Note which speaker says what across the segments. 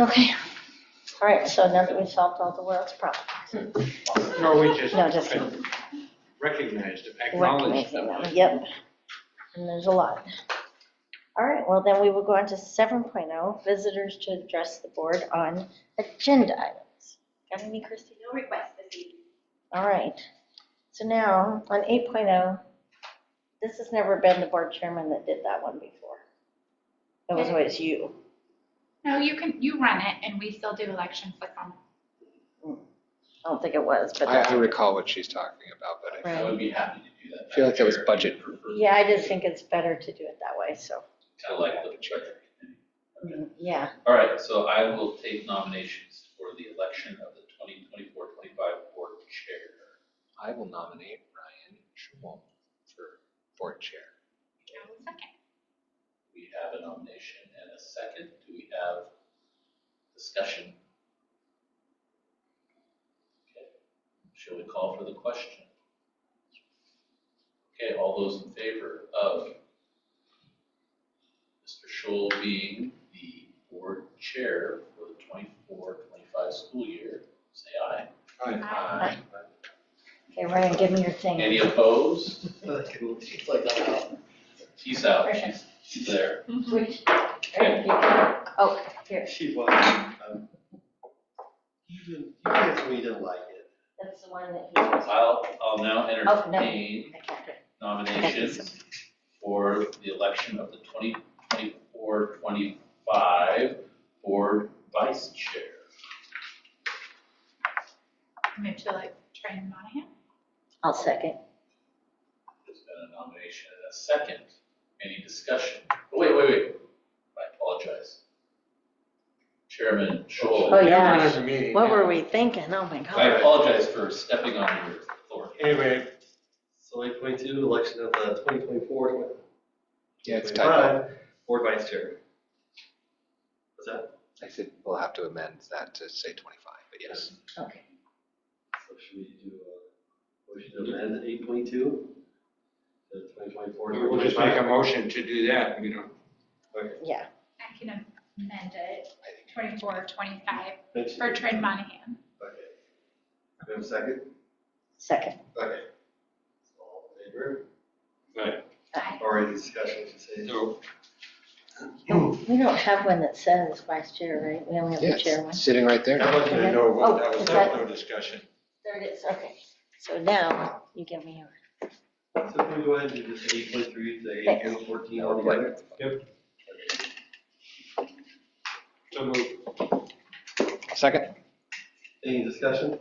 Speaker 1: Okay, all right, so now that we've solved all the world's problems,
Speaker 2: No, we just
Speaker 1: no, just
Speaker 2: recognized, acknowledged
Speaker 1: recognizing
Speaker 2: them.
Speaker 1: them, yep. And there's a lot. All right, well, then we will go on to 7.0, visitors to address the board on agenda items. Got any, Christie?
Speaker 3: No requests this evening.
Speaker 1: All right, so now on 8.0, this has never been the board chairman that did that one before. It was always you.
Speaker 4: No, you can, you run it and we still do elections like on
Speaker 1: I don't think it was, but
Speaker 5: I,
Speaker 1: that's,
Speaker 5: I recall what she's talking about, but
Speaker 6: I
Speaker 1: right.
Speaker 6: would be happy to do that.
Speaker 5: I feel like that was budget.
Speaker 1: Yeah, I just think it's better to do it that way, so,
Speaker 6: Kind of like the budget committee. Okay.
Speaker 1: mm, yeah.
Speaker 6: All right, so I will take nominations for the election of the 2024-25 board chair.
Speaker 5: I will nominate Ryan Schwalm for board chair.
Speaker 4: April second.
Speaker 6: We have a nomination and a second. Do we have discussion? Okay. Shall we call for the question? Okay, all those in favor of Mr. Shoal being the board chair for the 24-25 school year, say aye.
Speaker 1: Aye. Okay, Ryan, give me your thing.
Speaker 6: Any opposed?
Speaker 7: It's like, uh,
Speaker 6: He's out, she's, she's there.
Speaker 1: Which-
Speaker 6: Okay.
Speaker 1: Oh, here,
Speaker 7: she was, um, you didn't, you guys told me you didn't like it.
Speaker 1: that's the one that he was.
Speaker 6: I'll, I'll now
Speaker 1: Oh, no.
Speaker 6: entertain
Speaker 1: I can't do it.
Speaker 6: nominations for the election of the 2024-25 Board Vice Chair.
Speaker 4: Move to like Trey Monahan.
Speaker 1: I'll second.
Speaker 6: There's been a nomination and a second. Any discussion? Oh, Wait, wait, wait. I apologize. Chairman
Speaker 1: Oh,
Speaker 6: Scholl,
Speaker 1: yeah.
Speaker 2: Chairman of the meeting.
Speaker 1: What were we thinking? Oh, my
Speaker 6: I
Speaker 1: God.
Speaker 6: apologize for stepping on your authority.
Speaker 2: Anyway,
Speaker 7: So like twenty-two, election of the twenty twenty-four,
Speaker 5: Yeah, it's tied.
Speaker 7: twenty-five, board vice chair. What's that?
Speaker 5: I said, we'll have to amend that to say 25, but yes.
Speaker 1: Okay.
Speaker 7: So should we do, uh, motion to amend eight point two? The twenty twenty-four.
Speaker 2: we'll just make a motion to do that, you know.
Speaker 1: Yeah,
Speaker 4: I can amend it, 24, 25 for
Speaker 7: Okay.
Speaker 4: Trey Monahan.
Speaker 7: Do we have a second?
Speaker 1: second.
Speaker 7: Okay. So all in favor?
Speaker 4: Aye.
Speaker 7: Or any discussion, should say.
Speaker 2: So,
Speaker 1: We don't have one that says vice chair, right? We only have the
Speaker 5: Yes,
Speaker 1: chair one.
Speaker 5: sitting right there.
Speaker 2: that wasn't a no vote, that was,
Speaker 1: Okay.
Speaker 2: that was no discussion.
Speaker 1: There it is, okay. So now you give me yours.
Speaker 7: So can we go ahead and do this eight point three to eight
Speaker 1: Thanks.
Speaker 7: point fourteen
Speaker 5: That would
Speaker 7: all
Speaker 5: be like-
Speaker 7: together?
Speaker 2: So moved.
Speaker 5: Second?
Speaker 7: Any discussion?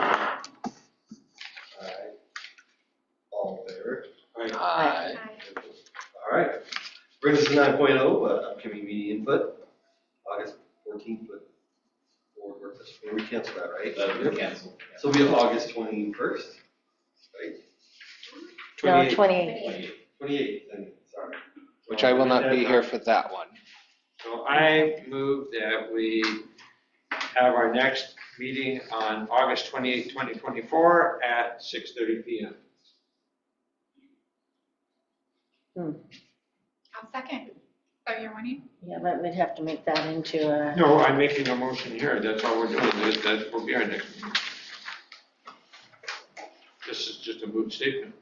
Speaker 7: Alright. All in favor?
Speaker 5: Aye.
Speaker 7: Alright. Brings us to nine point oh, upcoming meeting input, August fourteenth, but board work session, we cancel that, right?
Speaker 6: That was Uh, canceled.
Speaker 7: So we have August twenty-first, right?
Speaker 1: No,
Speaker 7: 28th.
Speaker 1: 28.
Speaker 7: Twenty-eighth, then, sorry.
Speaker 5: Which I will not be here for that one.
Speaker 2: So I move that we have our next meeting on August 28, 2024 at 6:30 PM.
Speaker 4: I'll second. So you're winning?
Speaker 1: Yeah, but we'd have to make that into a,
Speaker 2: No, I'm making a motion here, that's all we're doing, that, that will be our next meeting. This is just a moot statement.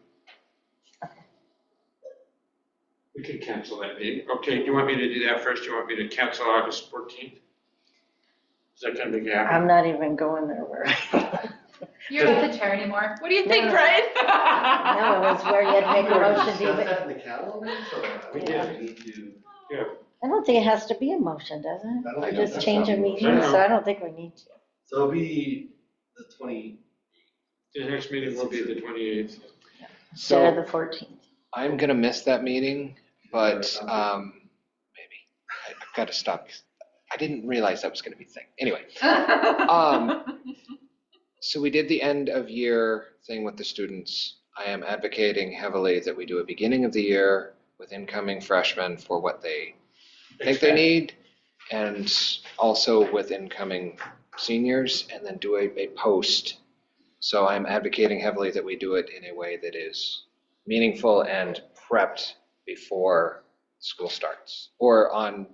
Speaker 2: We can cancel that meeting. Okay, do you want me to do that first? Do you want me to cancel August 14th? Is that gonna make it happen?
Speaker 1: I'm not even going there where.
Speaker 4: You're not the chair anymore. What do you think,
Speaker 1: No.
Speaker 4: Brian?
Speaker 1: No, it was where you'd make a motion to
Speaker 7: Discuss
Speaker 1: even,
Speaker 7: that in the calendar, so
Speaker 2: We
Speaker 7: did. Need to.
Speaker 1: I don't think it has to be a motion, does it?
Speaker 7: I don't
Speaker 5: I
Speaker 7: think
Speaker 1: Just
Speaker 7: that's
Speaker 1: change a
Speaker 7: how we work.
Speaker 1: meeting, so I don't think we need to.
Speaker 7: So it'll be the twenty,
Speaker 2: The next meeting will be the 28th.
Speaker 1: Instead
Speaker 5: So
Speaker 1: of the 14th.
Speaker 5: I'm going to miss that meeting, but um, maybe. I- I've got to stop. I didn't realize that was going to be a thing. Anyway, um, so we did the end of year thing with the students. I am advocating heavily that we do a beginning of the year with incoming freshmen for what they think they need and also with incoming seniors and then do a, a post. So I'm advocating heavily that we do it in a way that is meaningful and prepped before school starts or on